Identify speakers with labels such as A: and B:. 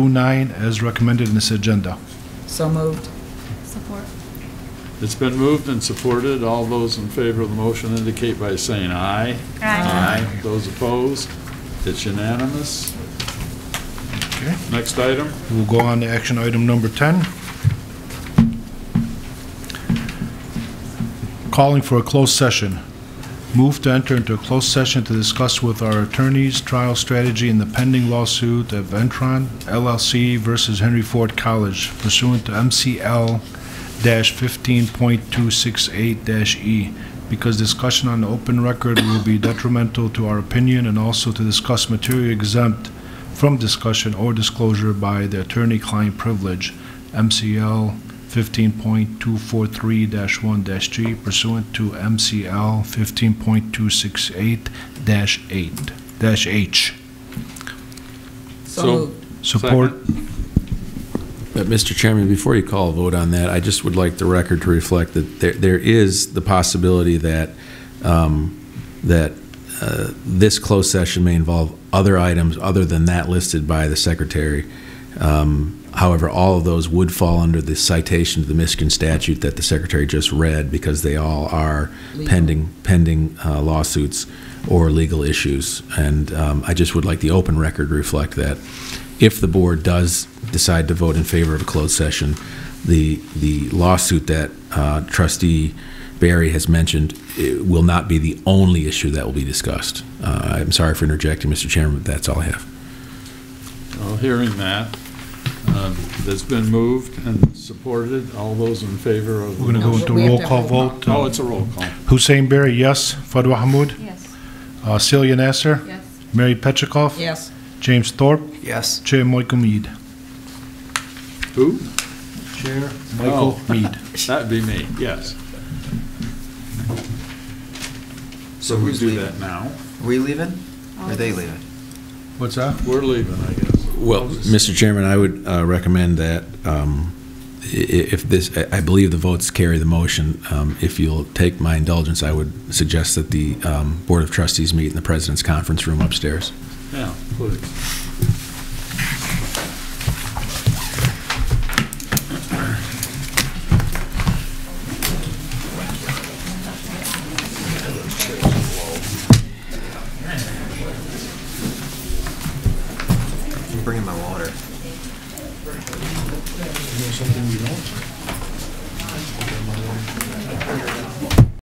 A: 09 as recommended in this agenda.
B: So moved.
C: Support.
D: It's been moved and supported. All those in favor of the motion indicate by saying aye.
C: Aye.
D: Those opposed? It's unanimous.
A: Okay.
D: Next item?
A: We'll go on to action item number 10. Calling for a closed session. Move to enter into a closed session to discuss with our attorneys trial strategy in the pending lawsuit of Ventron LLC versus Henry Ford College pursuant to MCL-15.268-E, E. because discussion on the open record will be detrimental to our opinion and also to discuss material exempt from discussion or disclosure by the attorney-client privilege, MCL 15.243-1-G pursuant to MCL 15.268-8, dash H.
B: So
D: So-
B: moved.
A: Support.
E: But, Mr. Chairman, before you call a vote on that, I just would like the record to reflect that there, there is the possibility that, um, that uh, this closed session may involve other items other than that listed by the secretary. Um, However, all of those would fall under the citation to the Michigan statute that the secretary just read because they all are
B: Legal.
E: pending, pending uh, lawsuits or legal issues. And um, I just would like the open record to reflect that if the board does decide to vote in favor of a closed session, the, the lawsuit that uh, trustee Barry has mentioned it will not be the only issue that will be discussed. Uh, I'm sorry for interjecting, Mr. Chairman, but that's all I have.
D: Well, hearing that, um, that's been moved and supported. All those in favor of? the
A: We're going to go
B: No,
D: motion-
A: into
B: we
A: a
B: have
A: roll
B: to
A: call
B: roll
A: vote. Uh,
D: Oh, it's a roll call.
A: Hussein Berry, yes. Fadwa Hamud?
C: Yes.
A: Uh, Celia Nasser?
C: Yes.
A: Mary Petchikoff?
B: Yes.
A: James Thorpe?
F: Yes.
A: Chair Michael Mead.
D: Who?
A: Chair
D: Michael
A: Mead.
D: That'd be me, yes. So we
F: who's
D: do
F: leaving?
D: that now.
F: Are we leaving? Or they leaving?
A: What's that?
D: We're leaving, I guess.
E: Well, Mr. Chairman, I would uh, recommend that um, i- i- if this, I I believe the votes carry the motion. Um, If you'll take my indulgence, I would suggest that the um, Board of Trustees meet in the President's Conference Room upstairs.
D: Yeah, please.
F: I'm bringing my water.
A: Something we don't?